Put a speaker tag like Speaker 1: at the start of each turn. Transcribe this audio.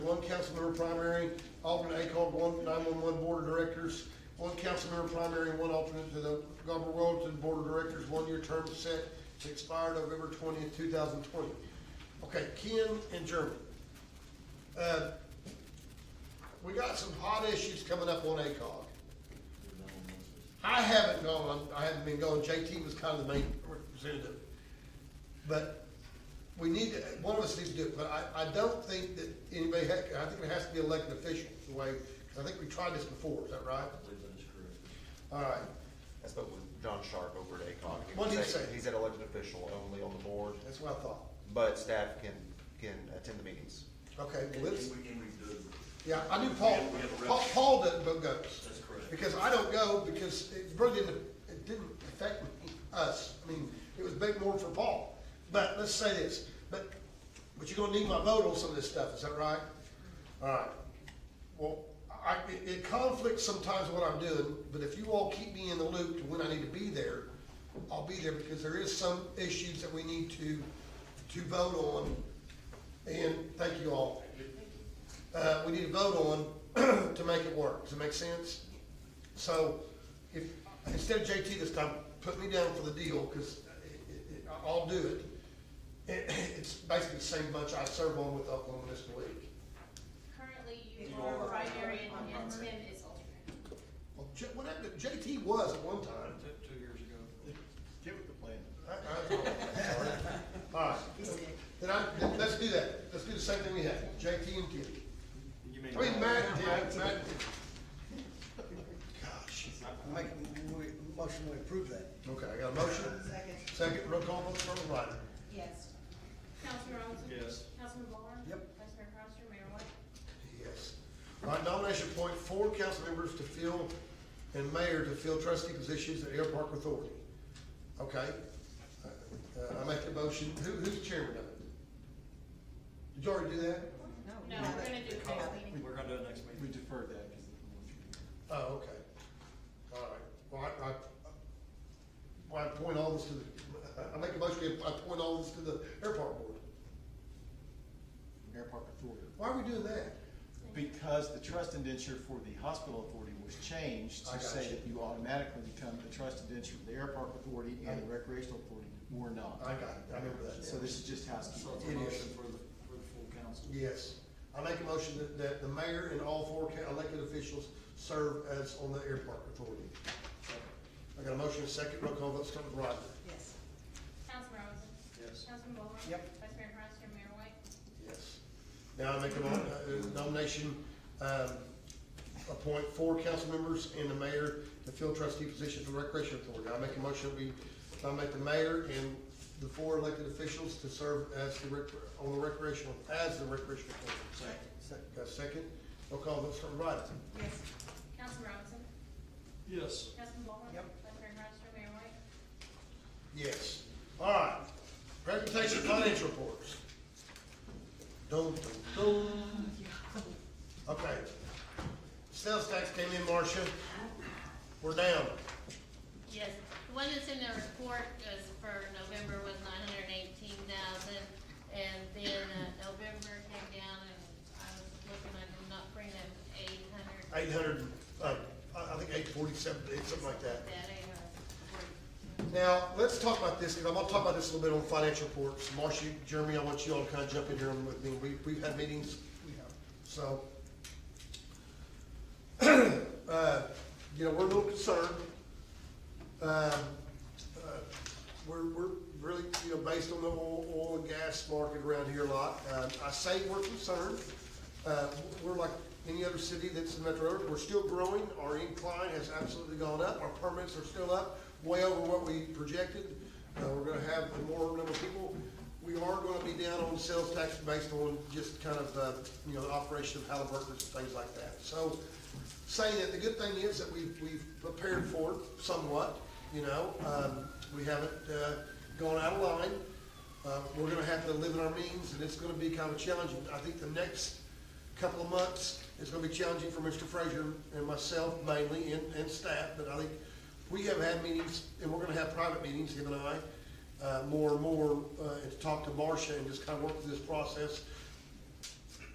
Speaker 1: one council member primary, alternate ACOG one, nine-one-one board of directors, one council member primary, and one alternate to the Gulf Royalton Board of Directors, one-year term set to expire November twentieth, two thousand twenty. Okay, Ken and Jeremy. Uh, We got some hot issues coming up on ACOG. I haven't gone, I haven't been going, JT was kind of the main representative. But we need, to one of us needs to do it, but I, I don't think that anybody, ha- I think it has to be elected official, the way, 'cause I think we tried this before, is that right?
Speaker 2: I believe that is correct.
Speaker 1: All right,
Speaker 3: I spoke with John Sharp over at ACOG.
Speaker 1: What did he
Speaker 3: was a-
Speaker 1: say?
Speaker 3: He's an elected official only on the board,
Speaker 1: that's what I thought.
Speaker 3: but staff can, can attend the meetings.
Speaker 1: Okay, well, let's,
Speaker 2: And we, and we do,
Speaker 1: yeah, I knew Paul,
Speaker 2: We have a rep.
Speaker 1: Paul, Paul doesn't go, goes.
Speaker 2: that's correct.
Speaker 1: Because I don't go, because it really didn't, it didn't affect me- us, I mean, it was big more for Paul. But let's say this, but, but you're gonna need my vote on some of this stuff, is that right? All right, well, I, it- it conflicts sometimes what I'm doing, but if you all keep me in the loop to when I need to be there, I'll be there, because there is some issues that we need to, to vote on, and thank you all. Uh, we need to vote on to make it work, does it make sense? So if, instead of JT this time, put me down for the deal, because I'll do it. It- It's basically the same bunch I serve on with Oklahoma Municipal League.
Speaker 4: Currently, you are primary and and Tim is alternate.
Speaker 1: Well, J- what happened, JT was at one time.
Speaker 5: Two years ago. Give it the plan.
Speaker 1: I- I- All right, then I, then let's do that, let's do the same thing we had, JT and Kitty.
Speaker 5: You
Speaker 1: I mean, Matt, and Tim, Matt, and Tim. Gosh.
Speaker 6: Make a mo- motion to approve that.
Speaker 1: Okay, I got a motion,
Speaker 7: Second.
Speaker 1: second, roll call, vote, Colonel Ryder.
Speaker 7: Yes.
Speaker 4: Councilman Robinson?
Speaker 5: Yes.
Speaker 4: Councilman Ballhorn?
Speaker 6: Yep.
Speaker 4: Vice Mayor Cronster, Mayor White?
Speaker 1: Yes. All right, nomination point four, council members to fill and mayor to fill trustee positions at Airpark Authority. Okay, uh, I make the motion, who, who's the chairman of it? Did you already do that?
Speaker 4: No, we're gonna do it next meeting.
Speaker 5: We're gonna do it next
Speaker 8: We
Speaker 5: week.
Speaker 8: deferred that because
Speaker 1: Oh, okay. All right, well, I, I, well, I point all this to the, I make a motion, I point all this to the airport board.
Speaker 8: the airport authority.
Speaker 1: Why are we doing that?
Speaker 8: Because the trust indenture for the hospital authority was changed
Speaker 1: I
Speaker 8: to
Speaker 1: got
Speaker 8: say
Speaker 1: you.
Speaker 8: that you automatically become the trust indenture for the airport authority and the recreational authority were not.
Speaker 1: I got it, I remember that.
Speaker 8: So this is just
Speaker 5: So
Speaker 8: housekeeping.
Speaker 5: it's a motion for the, for the full council.
Speaker 1: Yes. I make a motion that, that the mayor and all four ca- elected officials serve as on the airport authority. I got a motion, a second, roll call, vote, start with Rodney.
Speaker 7: Yes.
Speaker 4: Councilman Robinson?
Speaker 5: Yes.
Speaker 4: Councilman Ballhorn?
Speaker 6: Yep.
Speaker 4: Vice Mayor Cronster, Mayor White?
Speaker 1: Yes. Now I make a mo- uh, nomination, um, appoint four council members and the mayor to fill trustee positions for recreation authority. I make a motion that we nominate the mayor and the four elected officials to serve as the rec, on the recreational, as the recreational authority. Second. Got a second? Roll call, vote, start with Rodney.
Speaker 7: Yes.
Speaker 4: Councilman Robinson?
Speaker 5: Yes.
Speaker 4: Councilman Ballhorn?
Speaker 6: Yep.
Speaker 4: Vice Mayor Cronster, Mayor White?
Speaker 1: Yes. All right. Presentation of financial reports. Dun, dun, dun. Okay. Sales tax came in, Marcia. We're down.
Speaker 9: Yes, the one that's in the report is for November was nine hundred and eighteen thousand, and then uh, November came down, and I was looking, I did not bring them eight hundred.
Speaker 1: Eight hundred, uh, I I think eight forty-seven, something like that.
Speaker 9: That eight hundred.
Speaker 1: Now, let's talk about this, because I'm gonna talk about this a little bit on financial reports. Marcia, Jeremy, I want you all to kind of jump in here with me. We, we've had meetings. We have. So. Uh, you know, we're a little concerned. Um, uh, We're, we're really, you know, based on the oil, oil and gas market around here a lot. Uh, I say we're concerned. Uh, we're like any other city that's in metro area. We're still growing. Our incline has absolutely gone up. Our permits are still up, way over what we projected. Uh, we're gonna have a more number of people. We are gonna be down on sales tax based on just kind of, uh, you know, the operation of Halliburton and things like that. So, saying that the good thing is that we've, we've prepared for it somewhat, you know, um, we haven't, uh, gone out of line. Uh, we're gonna have to live in our means and it's gonna be kind of challenging. I think the next couple of months is gonna be challenging for Mr. Frazier and myself mainly and, and staff, but I think we have had meetings and we're gonna have private meetings, him and I, uh, more and more, uh, and to talk to Marcia and just kind of work through this process